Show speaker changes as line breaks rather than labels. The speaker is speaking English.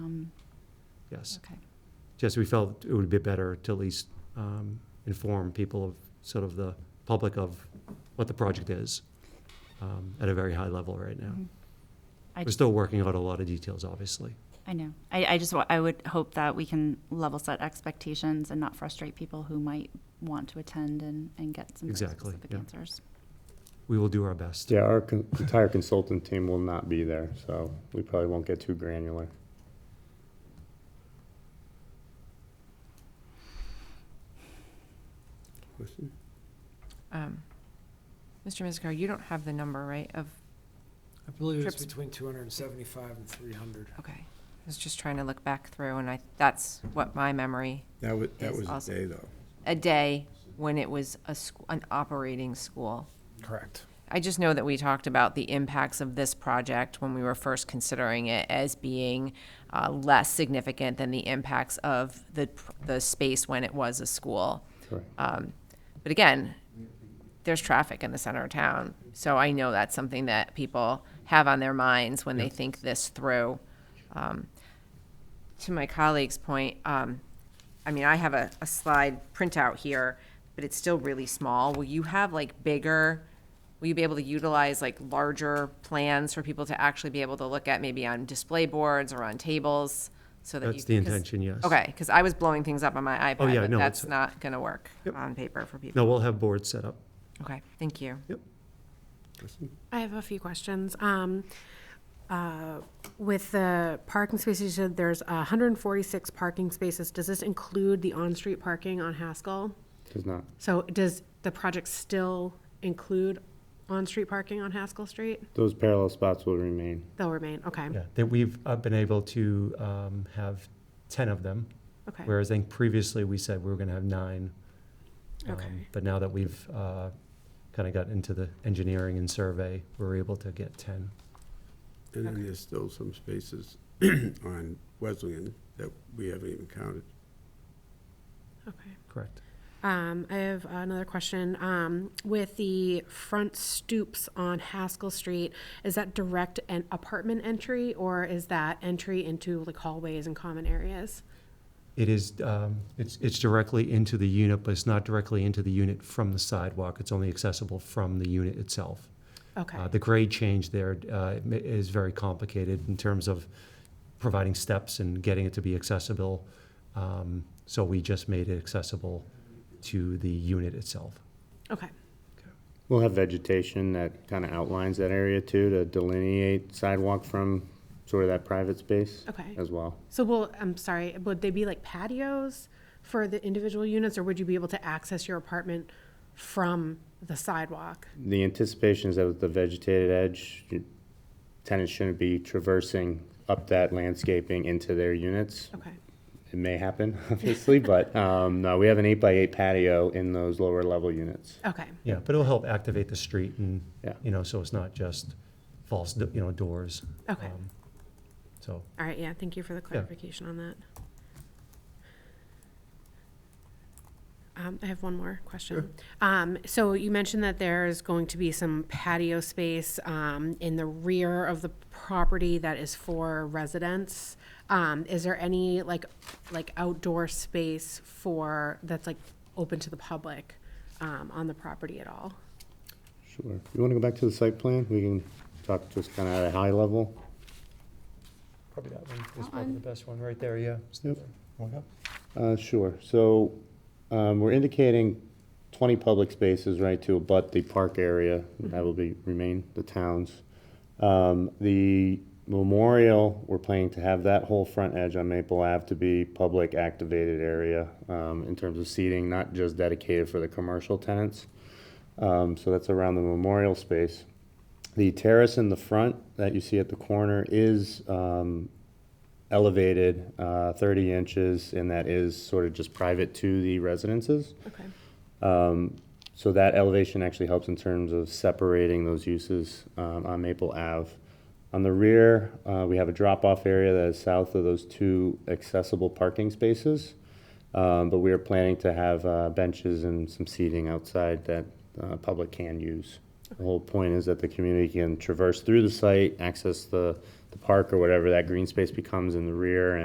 yes.
Okay.
Just we felt it would be better to at least um, inform people of, sort of the public of what the project is um, at a very high level right now.
Mhm. I-
We're still working out a lot of details, obviously.
I know. I, I just, wa- I would hope that we can level set expectations and not frustrate people who might want to attend and, and get some very
Exactly,
specific
yeah.
answers.
We will do our best.
Yeah, our con- entire consultant team will not be there, so we probably won't get too granular.
Um, Mr. Mizikar, you don't have the number, right, of,
I believe it's
Trips-
between two hundred and seventy-five and three hundred.
okay. I was just trying to look back through, and I, that's what my memory,
That was, that
It's
was
awesome.
a day, though.
a day when it was a, sc- an operating school.
Correct.
I just know that we talked about the impacts of this project when we were first considering it as being uh, less significant than the impacts of the, pr- the space when it was a school.
Correct.
Um, But again, there's traffic in the center of town, so I know that's something that people have on their minds when they think this through. Um, To my colleague's point, um, I mean, I have a, a slide printout here, but it's still really small. Will you have like bigger, will you be able to utilize like larger plans for people to actually be able to look at maybe on display boards or on tables? So that you.
That's the
'cause-
intention, yes. Oh,
Okay, because I was blowing things up on my iPad,
yeah,
but
no,
that's
it's-
not going to work
Yep.
on paper for people.
No, we'll have boards set up.
Okay, thank you.
Yep.
I have a few questions. Um, uh, With the parking spaces, you said there's 146 parking spaces. Does this include the on-street parking on Haskell?
Does not,
So does the project still include on-street parking on Haskell Street?
those parallel spots will remain.
They'll remain, okay,
Yeah, that we've uh, been able to um, have 10 of them,
okay,
whereas I think previously we said we were going to have nine. Um,
Okay.
But now that we've kind of got into the engineering and survey, we're able to get 10.
And then there's still some spaces on Wesleyan that we haven't even counted.
okay.
Correct.
Um, I have another question. Um, With the front stoops on Haskell Street, is that direct an apartment entry or is that entry into like hallways and common areas?
It is, um, it's, it's directly into the unit, but it's not directly into the unit from the sidewalk. It's only accessible from the unit itself.
Okay.
Uh, The grade change there uh, ma- is very complicated in terms of providing steps and getting it to be accessible. Um, So we just made it accessible to the unit itself.
Okay.
We'll have vegetation that kind of outlines that area too, to delineate sidewalk from sort of that private space
Okay.
as well.
So, well, I'm sorry, would they be like patios for the individual units, or would you be able to access your apartment from the sidewalk?
The anticipation is that with the vegetated edge, you- tenants shouldn't be traversing up that landscaping into their units.
Okay,
It may happen, obviously, but um, no, we have an eight by eight patio in those lower level units.
okay,
Yeah, but it'll help activate the street and,
Yeah.
you know, so it's not just false, you know, doors.
Okay.
Um, So,
all right, yeah, thank you for the clarification on that. Um, I have one more question. Um, so you mentioned that there is going to be some patio space, um, in the rear of the property that is for residents. Um, is there any like, like outdoor space for, that's like open to the public, um, on the property at all?
Sure. You want to go back to the site plan? We can talk just kind of at a high level.
Probably that one is
That
probably the
one?
best one, right there, yeah.
Yep.
One up?
Uh, Sure. So um, we're indicating 20 public spaces, right, to abut the park area. That will be, remain the town's. Um, The memorial, we're planning to have that whole front edge on Maple Ave to be public activated area um, in terms of seating, not just dedicated for the commercial tenants. Um, So that's around the memorial space. The terrace in the front that you see at the corner is um, elevated uh, 30 inches, and that is sort of just private to the residences.
Okay.
Um, So that elevation actually helps in terms of separating those uses um, on Maple Ave. On the rear, uh, we have a drop-off area that is south of those two accessible parking spaces, Um, but we are planning to have uh, benches and some seating outside that uh, public can use. The whole point is that the community can traverse through the site, access the the park or whatever that green space becomes in the rear,